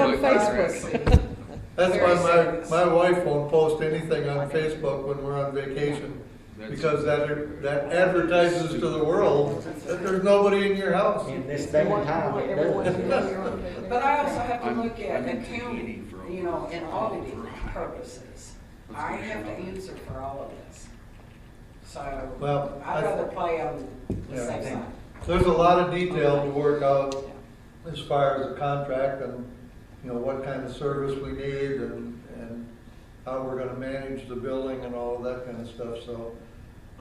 on Facebook. That's Very why serious. my, my wife won't post anything on Facebook when we're on vacation, because that, that advertises to the world that there's nobody in your house. In this day and time, it does. But I also have to I'm- look at I'm in accounting, Tahiti for you know, over- and auditing for- purposes. I have to answer for all of this. So Well, I'd I- rather play on the Yeah, I safe think- side. There's a lot of detail to work Yeah. out as far as the contract and, you know, what kind of service we need and, and how we're gonna manage the building and all of that kind of stuff, so,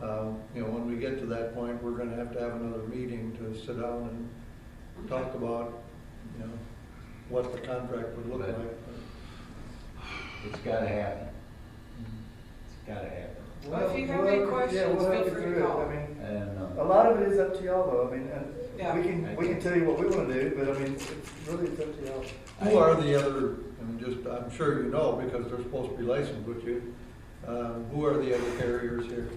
um, you know, when we get to that point, we're gonna have to have another meeting to sit down and talk about, you know, what the contract would look Right. like. It's gotta happen. It's gotta happen. Well, if you have any Well, yeah, questions, we'll feel help you free to through it. call. I mean, I don't a know. lot of it is up to y'all though, I mean, and Yeah. we can, we can tell you what we wanna do, but I mean, it's really it's up to y'all. Who are the other, I'm just, I'm sure you know, because they're supposed to be licensed with you, um, who are the other carriers here?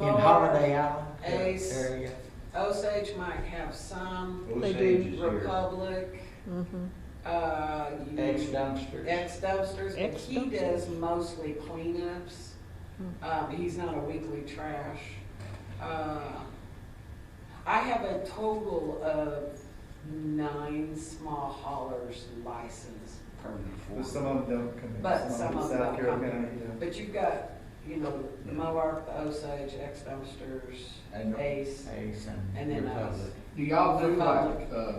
In Holiday Island Ace. area. Osage might have some, They Republic, Mm-hmm. uh, you- Ex dumpsters. Ex dumpsters, but he Ex-dumpsters. does mostly cleanups. Um, he's not a weekly trash. Uh, I have a total of nine small haulers licensed But permanent. some of them don't come in. But some of them South don't come Carolina, in. yeah. But you've got, you know, the Moark, the Osage, ex dumpsters, And- Ace, Ace and- and then us. Do y'all do Republic. like, uh,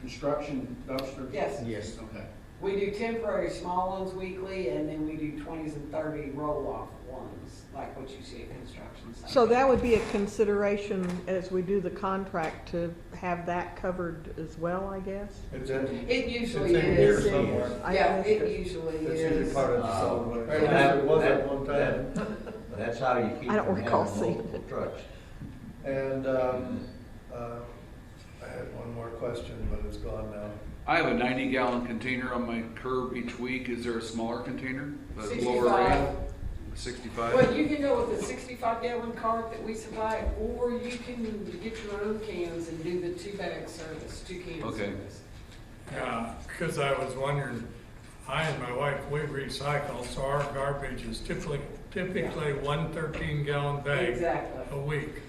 construction dumpsters? Yes. Yes. Okay. We do temporary small ones weekly, and then we do twenties and thirty roll-off ones, like what you see at construction sites. So that would be a consideration as we do the contract to have that covered as well, I guess? It's in, It it's usually in here is. somewhere. I Yeah, missed it usually It's usually is. part of the Uh, solid and waste. Or at least that- it was that- at one time. that- That's how you keep I don't from recall having seeing multiple it. trucks. And, um, uh, I had one more question, but it's gone now. I have a ninety gallon container on my curb each week. Is there a smaller container? A Lower Sixty-five. rate? Sixty-five? Well, you can go with the sixty-five gallon cart that we supply, or you can get your own cans and do the two bag service, two can Okay. service. Yeah, because Uh, I was wondering, I and my wife, we recycle, so our garbage is typically, typically one thirteen gallon bag a Exactly, week. We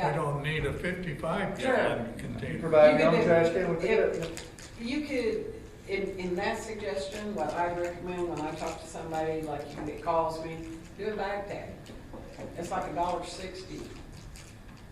yeah. don't need a fifty-five gallon You container. Provide You your can own do- trash can with if- it. You could, in, in that suggestion, what I recommend when I talk to somebody like you that calls me, do a bag tag. It's like a dollar sixty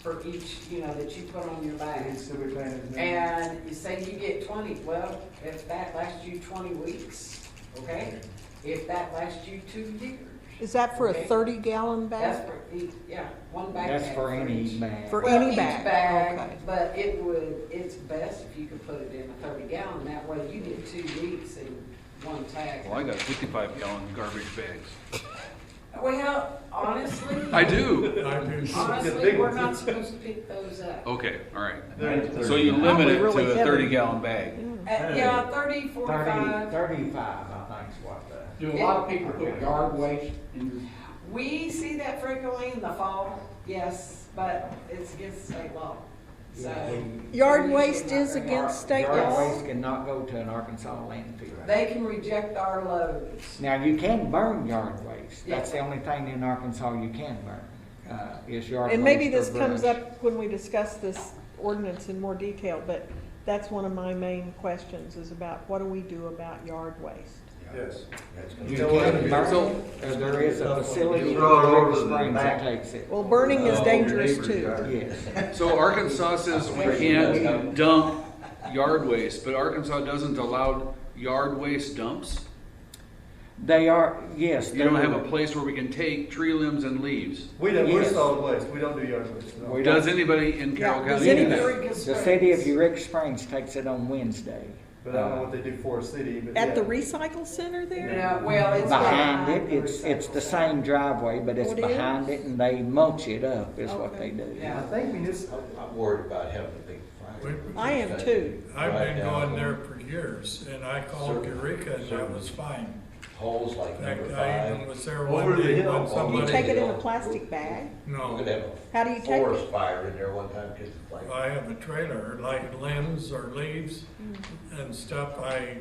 for each, you know, that you put on your You'd bags. still be paying as many. And you say you get twenty, well, if that lasts you twenty weeks, okay? If that lasts you two years, Is that for a Okay. thirty gallon that's bag? for, each- yeah, one bag That's tag for any each. man. For Well, any each bag, okay. But it would, it's best if you could put it in a thirty gallon, that way you get two weeks in one tag. Well, I got fifty-five gallon garbage bags. Well, honestly, I do. I do. The honestly, big we're ones. not supposed to pick those up. Uh, Okay, all right. They're- Thirty- So you thirty. limit it really to a heavy. thirty gallon Hmm. bag. Uh, yeah, thirty, Thirty, forty-five. thirty-five, I think is what the. Do a lot of people put yard waste in your We see that frequently in the fall, yes, but it's against state law, so. Yard Usually waste not is very against hard. state Yard law? waste cannot go to an Arkansas landfill. They can reject our loads. Now, you can burn yard waste. Yeah. That's the only thing in Arkansas you can burn, uh, is yard waste. And maybe or this comes brush. up when we discuss this ordinance in more detail, but that's one of my main questions is about what do we do about yard waste? Yes. You Still have to can be- burn it, or there is a facility in Throw it over River to the Springs back. that takes it. Well, burning is Oh, dangerous neighbor's too. yard. Yes. So Arkansas says we can't dump yard waste, but Arkansas doesn't allow yard waste dumps? They are, yes. You don't have a place where we can take tree limbs and leaves? We don't, we're Yes. solid waste, we don't do yard waste, no. We don't- Does anybody in Carroll Yeah, does County? do anybody- that? Very good The city of spreads. Eureka Springs takes it on Wednesday. But uh, I don't know what they do for a city, but yeah. At the recycle center there? Yeah, well, it's. Uh, Behind it, it's, it's the same driveway, but it's Oh, it is? behind it and they mulch it up is what Okay. they do. Yeah. I think municipal, I'm worried about having a big fire. I am too. I've Right been down going there for years, and I called Eureka, and that was fine. Holes like In fact, number I even five. was there Over one the day hill. when Do you somebody. take it in a plastic bag? We No, could have a How do you take forest it? fire in there one time because it's like, I have a trailer, like limbs or leaves and stuff, I